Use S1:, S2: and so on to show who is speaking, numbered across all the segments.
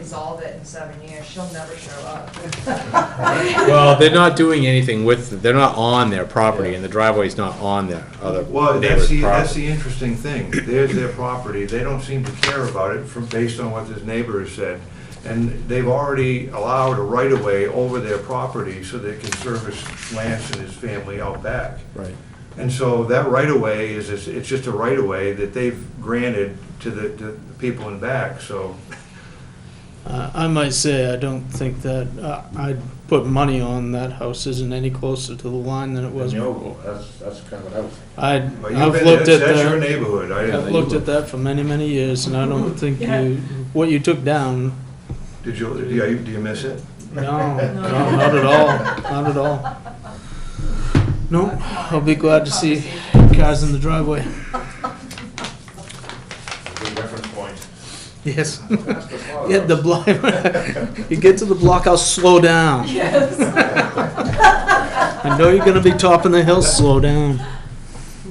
S1: resolve it in seven years, she'll never show up.
S2: Well, they're not doing anything with, they're not on their property, and the driveway's not on their other
S3: Well,
S2: neighbor's
S3: that's the, that's
S2: property.
S3: the interesting thing. There's their property, they don't seem to care about it from, based on what this neighbor has said. And they've already allowed a right-of-way over their property so they can service Lance and his family out back.
S2: Right.
S3: And so that right-of-way is, is- it's just a right-of-way that they've granted to the, to the people in back, so.
S4: Uh, I might say, I don't think that, uh, I'd put money on that house isn't any closer to the line than it was.
S5: No, that's, that's kind of what I was.
S4: I,
S3: But you've
S4: I've
S3: been-
S4: looked at
S3: That's your
S4: that,
S3: neighborhood, I
S4: I've
S3: didn't,
S4: looked at that for many, many years, and I don't think you, what you took down,
S3: did you, do you, do you miss it?
S4: no, no, not at all, not at all. No, I'll be glad to see cars in the driveway.
S5: A good reference point.
S4: Yes. Yeah, the block, you get to the block, I'll slow down.
S1: Yes.
S4: I know you're gonna be topping the hill, slow down.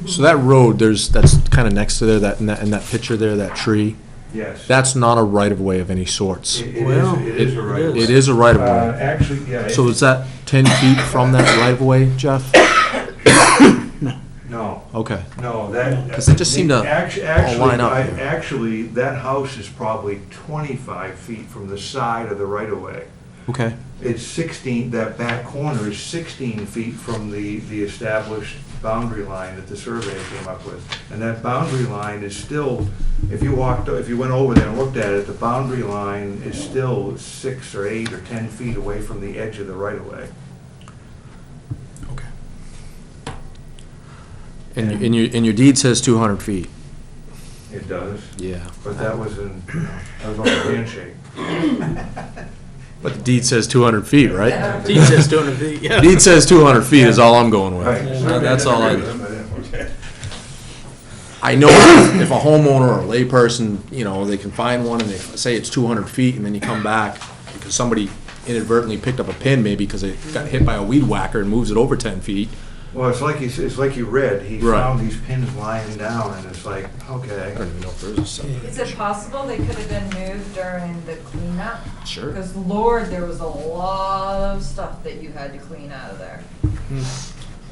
S6: So that road, there's, that's kind of next to there, that, in that, in that picture there, that tree,
S3: Yes.
S6: that's not a right-of-way of any sorts.
S3: It
S6: It
S3: it
S4: Well,
S3: is, it is
S6: is a
S3: a right-of-way. Uh,
S6: right-of-way.
S3: actually, yeah. it-
S6: So is that ten feet from that right-of-way, Jeff?
S3: No.
S6: Okay.
S3: No, that.
S6: 'Cause it just seemed to
S3: Actu-
S6: all
S3: actually,
S6: line up
S3: I-
S6: here.
S3: Actually, that house is probably 25 feet from the side of the right-of-way.
S6: Okay,
S3: It's 16, that back corner is 16 feet from the, the established boundary line that the survey came up with. And that boundary line is still, if you walked, if you went over there and looked at it, the boundary line is still six or eight or 10 feet away from the edge of the right-of-way.
S6: okay. And, and your, and your deed says two hundred feet?
S3: It does,
S6: Yeah.
S3: but that was in, you know, that was on a handshake.
S6: But the deed says two hundred feet, right?
S4: He says don't have, yeah.
S6: Deed says two hundred feet is all I'm going
S3: Right.
S6: with. That's all I.
S3: Okay.
S6: I know if if a homeowner or a layperson, you know, they can find one and they say it's two hundred feet and then you come back because somebody inadvertently picked up a pin maybe because it got hit by a weed whacker and moves it over ten feet.
S3: Well, it's like you, s- it's like you read, he
S6: Right.
S3: found these pins lying down, and it's like, okay.
S6: I don't even know if there is a septic.
S1: Is it possible they could have been moved during the cleanup?
S6: Sure.
S1: Because Lord, there was a lot of stuff that you had to clean out of there.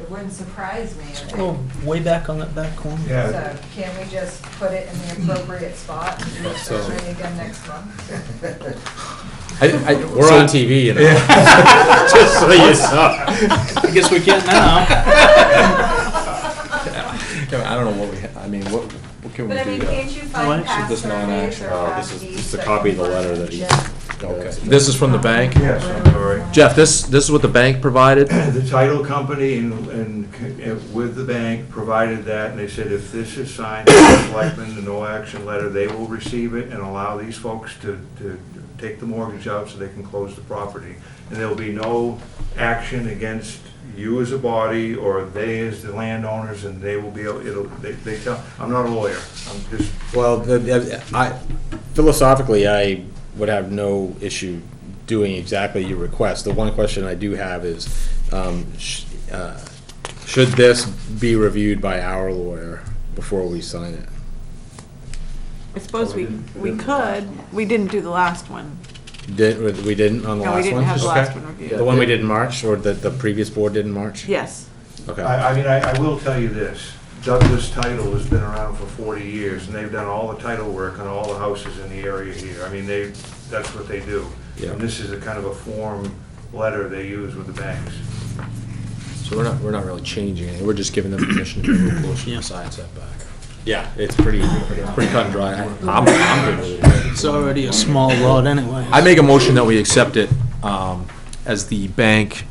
S1: It wouldn't surprise me. if they-
S4: Oh, way back on that back corner.
S3: Yeah,
S1: So can we just put it in the appropriate spot and do the
S2: So-
S1: survey again next month?
S6: I, I,
S2: We're on TV, you know. Just so you know.
S4: I guess we can now.
S6: I don't know what we, ha- I mean, what, what can we
S1: But I mean,
S6: do?
S1: can't you
S4: Well,
S1: find
S4: actually,
S1: past
S6: this
S1: surveys
S6: non-action-
S1: or
S2: oh,
S1: past
S2: this is-
S1: deeds
S2: this is a
S1: that
S2: copy of
S1: you
S2: the
S1: find
S2: letter
S1: on
S2: that he-
S1: Jeff?
S6: Okay. This is from the bank?
S3: yes, I'm sorry.
S6: Jeff, this, this is what the bank provided?
S3: The title company and, and c- and with the bank provided that, and they said if this is signed by the selectmen, the no action letter, they will receive it and allow these folks to, to take the mortgage out so they can close the property. And there'll be no action against you as a body or they as the landowners, and they will be, able- it'll, they, they tell, I'm not a lawyer, I'm just
S2: Well, the- the- I, philosophically, I would have no issue doing exactly your request. The one question I do have is, um, sh- uh, should this be reviewed by our lawyer before we sign it?
S7: I suppose we, we could, we didn't do the last one.
S2: Did, we didn't on the last
S7: No, we
S2: one?
S7: didn't have the
S2: Okay.
S7: last one reviewed.
S2: The one we did in March, or that the previous board did in March?
S7: Yes,
S2: Okay.
S3: I, I mean, I, I will tell you this, Douglas Title has been around for forty years, and they've done all the title work on all the houses in the area here, I mean, they, that's what they do.
S2: Yeah.
S3: And this is a kind of a form letter they use with the banks.
S6: So we're not, we're not really changing it, we're just giving them permission to move closer to the side setback.
S2: Yeah, it's pretty,
S6: Pretty cut and dry. I'm, I'm good with it.
S4: It's already a small lot anyway.
S6: I make a motion that we accept it um, as the bank,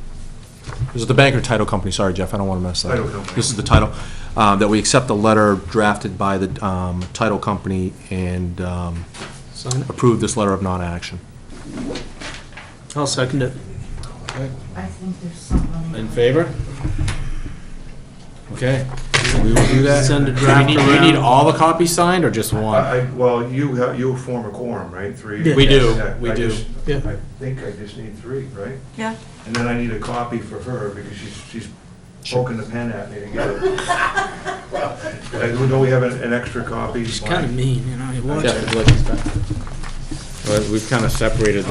S6: is it the bank or title company? Sorry, Jeff, I don't want to mess that up.
S3: Title company.
S6: This is the title, uh, that we accept the letter drafted by the um, title company and um,
S4: Sign it.
S6: approve this letter of non-action.
S4: I'll second it.
S2: In favor? Okay. We will do that.
S4: Send a
S2: Do we
S4: draft
S2: need- Do we need
S4: around.
S2: all the copies signed, or just
S3: I,
S2: one?
S3: I- well, you, ha- you form a quorum, right, three?
S4: Yeah. We
S2: do,
S3: Yeah,
S2: we
S3: I
S2: do.
S3: just-
S4: Yeah.
S3: I think I just need three, right?
S7: yeah.
S3: And then I need a copy for her, because she's, she's poking the pen at me to get it. Uh, Don't we have an, an extra copy?
S4: She's kind of mean, you know, you watch
S2: Jeff,
S4: it.
S2: would you like these back?
S3: But we've kind of separated